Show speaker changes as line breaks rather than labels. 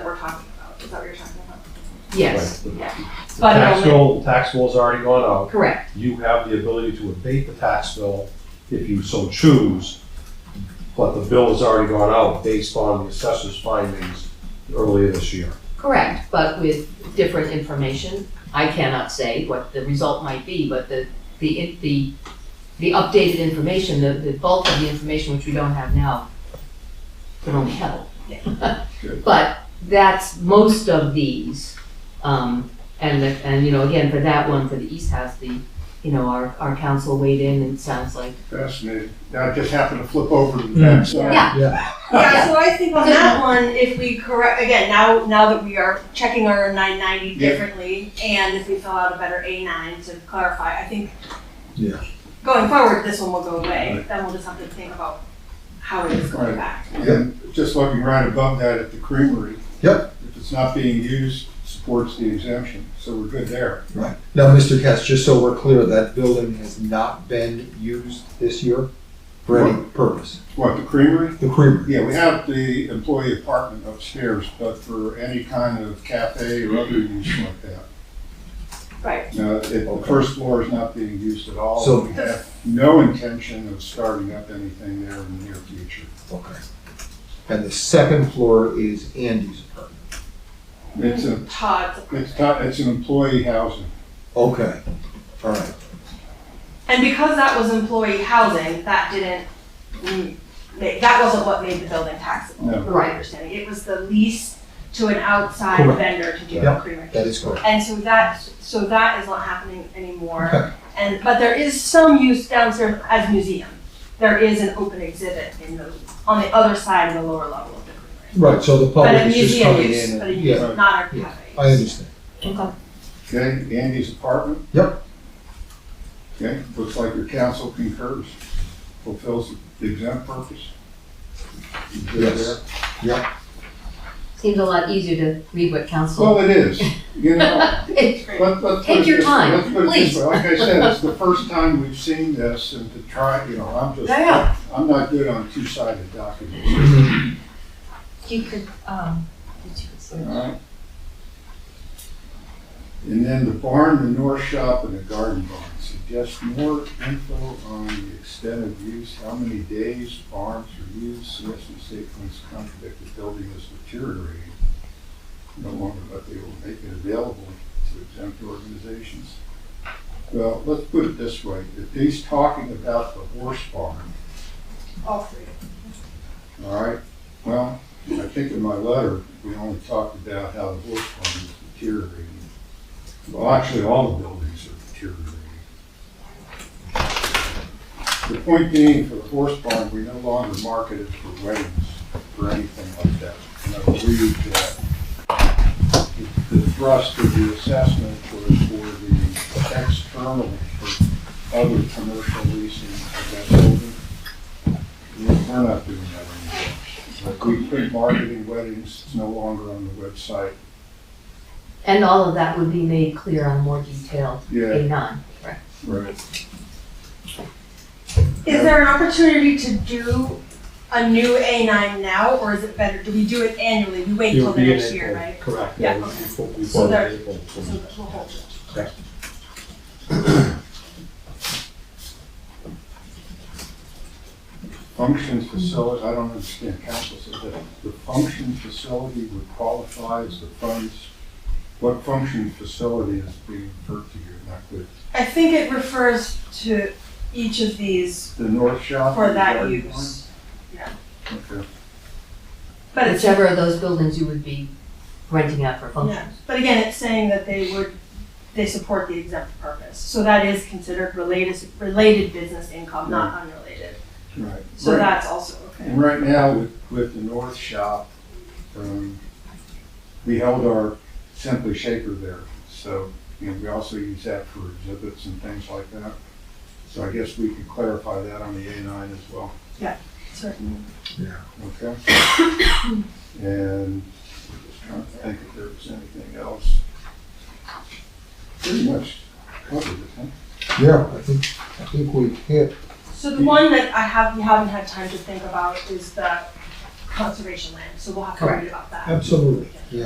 talking about, is that what you're talking about?
Yes,
The
But,
tax
um,
bill, tax bill's already gone out.
correct.
You have the ability to abate the tax bill if you so choose, but the bill has already gone out based on the assessor's findings earlier this year.
Correct, but with different information. I cannot say what the result might be, but the, the, it- the, the updated information, the, the bulk of the information which we don't have now can only help. But that's most of these. Um, and, the- and, you know, again, for that one, for the East House, the, you know, our, our council weighed in and it sounds like,
Fascinating. Now I just happened to flip over to the back side.
yeah,
Yeah, so I think on that one, if we correct, again, now, now that we are checking our nine ninety
Yeah.
differently, and if we fill out a better A nine to clarify, I think
Yeah.
going forward, this one will go away, then we'll just have to think about how it is going
Right.
back.
And just looking right above that at the creamery.
Yep.
If it's not being used, supports the exemption, so we're good there.
Right. Now, Mr. Katz, just so we're clear, that building has not been used this year for any purpose.
What, the creamery?
The creamery.
Yeah, we have the employee apartment upstairs, but for any kind of cafe or other use like that.
Right,
No, it- the first floor is not being used at all.
So-
We have no intention of starting up anything there in the near future.
Okay. And the second floor is Andy's apartment.
It's a,
Todd's
it's, not- it's an employee housing.
Okay. All right.
And because that was employee housing, that didn't, mm, ma- that wasn't what made the building taxable,
No.
from my understanding. It was the lease to an outside
Correct.
vendor to do the
Yep.
creamery.
That is correct.
And so that, so that is not happening anymore.
Okay.
And, but there is some use downstairs as museum. There is an open exhibit in the, on the other side of the lower level of the creamery.
Right. So the
But a
public is just
museum
coming
use,
in.
but a
And,
use,
yeah.
not a
Yeah. I
cafe.
understand.
Okay, Andy's apartment?
Yep.
Okay, looks like your council concurs, fulfills the exempt purpose. You good
Yes.
there?
seems a lot easier to read what council.
Well, it is, you know, let, let's. put
Take
it
your
this-
time,
let's put it this
please.
way. Like I said, it's the first time we've seen this and to try, you know, I'm just,
Yeah.
I'm not good on two-sided documents,
You could, um, did you consider?
all right? And then the barn, the north shop and the garden barn. Suggest more info on the extent of use, how many days barns are used, suggested statements contradict the building is deteriorating. No longer, but they will make it available to exempt organizations. Well, let's put it this way, if he's talking about the horse barn,
All three.
all right? Well, I think in my letter, we only talked about how the horse barn is deteriorating. Well, actually, all the buildings are deteriorating. The point being, for the horse barn, we no longer market it for weddings or anything like that. And I believe that the the thrust of the assessment was for the external, for other commercial leasing of that building. We- We're not doing that anymore. We quit marketing weddings, it's no longer on the website.
And all of that would be made clear on more detail,
Yeah,
A nine.
right.
Is there an opportunity to do a new A nine now, or is it better, do we do it annually? We wait
It
till
would
the
be in
next year,
April,
right?
Correct.
Yeah,
We-
okay.
we- we-
So there-
April.
So we'll hold it.
Function facility, I don't understand, council said that the function facility would qualify as the funds. What function facility is being referred to here, not with
I think it refers to each of these
the north shop?
for
and the
that
garden
use.
barn? Okay.
But it's,
Whichever of those buildings you would be renting out for
yeah,
functions.
but again, it's saying that they would, they support the exempt purpose. So that is considered related, related business income, not unrelated.
Right.
So
Right.
that's also okay.
And right now, with, with the north shop, um, we held our Simply Shaker there. So, you know, we also use that for exhibits and things like that. So I guess we could clarify that on the A nine as well.
Certainly.
Okay. And I'm just trying to think if there was anything else. Pretty much covered it, huh?
Yeah, I think, I think we hit,
So the one that I have, we haven't had time to think about is the conservation land, so we'll have to read about that.
absolutely. Yeah.